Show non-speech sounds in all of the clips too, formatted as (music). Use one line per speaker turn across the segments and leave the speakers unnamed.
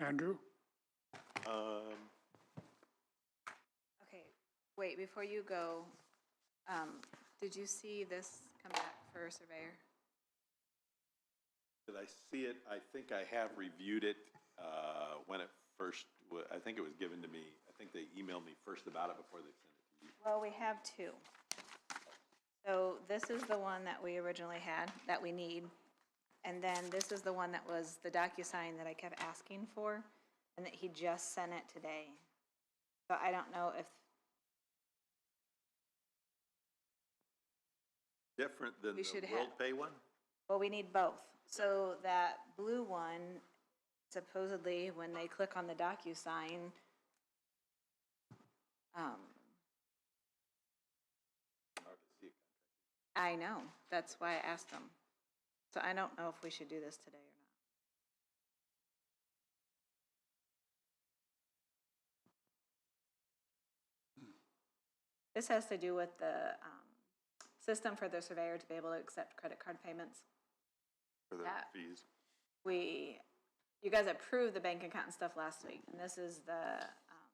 Andrew?
Um,
Okay, wait, before you go, um, did you see this come back for surveyor?
Did I see it? I think I have reviewed it uh, when it first, wa- I think it was given to me. I think they emailed me first about it before they sent it to you.
Well, we have two. So this is the one that we originally had, that we need. And then this is the one that was the DocuSign that I kept asking for, and that he just sent it today. So I don't know if,
Different than
We should
the
have-
World Pay one?
well, we need both. So that blue one, supposedly, when they click on the DocuSign, um,
Hard to see it.
I know, that's why I asked them. So I don't know if we should do this today or not. This has to do with the um, system for the surveyor to be able to accept credit card payments.
For the
That-
fees.
We, you guys approved the bank account and stuff last week, and this is the, um,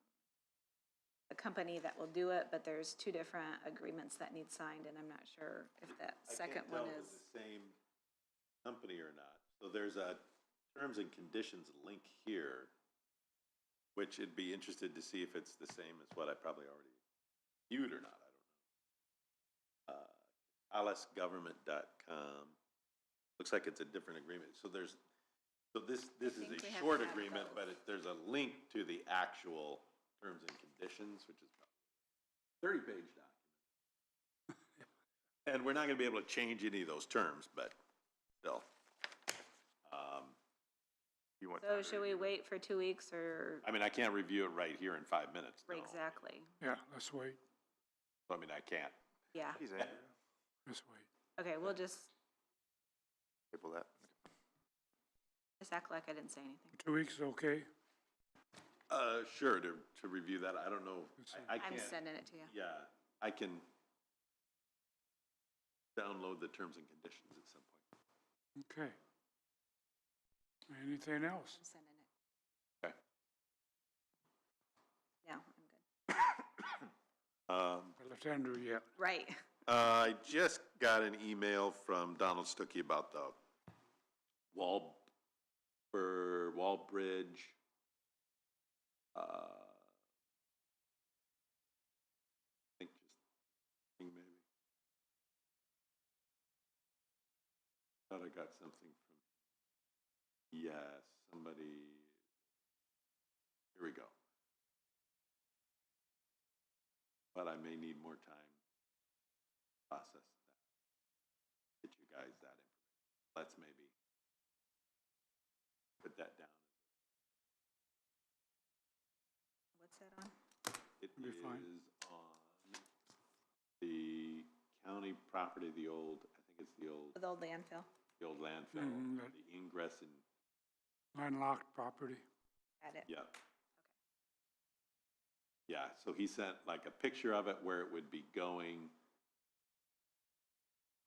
the company that will do it, but there's two different agreements that need signed, and I'm not sure if that second one
I can't tell if
is.
it's the same company or not. So there's a terms and conditions link here, which it'd be interested to see if it's the same as what I probably already viewed or not, I don't know. Uh, AlisGovernment.com, looks like it's a different agreement. So there's, so this, this is
think we have
a
to
short
have
agreement,
both.
but it, there's a link to the actual terms and conditions, which is thirty-page document. And we're not gonna be able to change any of those terms, but still. Um, You want? time
So
to
should we
review it?
wait for two weeks or
I mean, I can't review it right here in five minutes. no.
exactly?
Yeah, let's wait,
I mean, I can't.
Yeah,
He's
(laughs)
angry.
let's wait.
okay, we'll just,
Table that.
just act like I didn't say anything.
Two weeks, is okay?
Uh, sure, to, to review that, I don't know, I, I
I'm
can't,
sending it to you.
yeah, I can download the terms and conditions at some point.
Okay. Anything else?
I'm sending it.
Okay.
No, I'm good.
Um,
I left Andrew yet.
Right, (laughs)
Uh, I just got an email from Donald Stuckey about the wall, for wall bridge. uh, I think just, thing maybe. Thought I got something from, yeah, somebody, here we go. But I may need more time process that, get you guys that information. Let's maybe put that down.
what's that on?
It
You're
is
fine.
on the county property, the old, I think it's the old,
With old landfill,
the old landfill,
Mhm, that-
the ingress and,
Landlocked property.
got it.
yeah. Yeah, so he sent like a picture of it where it would be going,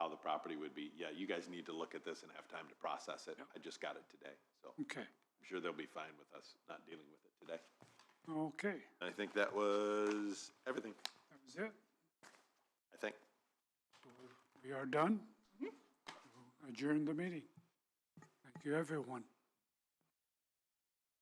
how the property would be. Yeah, you guys need to look at this and have time to process it. I just got it today, so.
Okay,
I'm sure they'll be fine with us not dealing with it today.
okay,
I think that was everything,
that was it.
I think.
We are done. Adjourn the meeting. Thank you, everyone.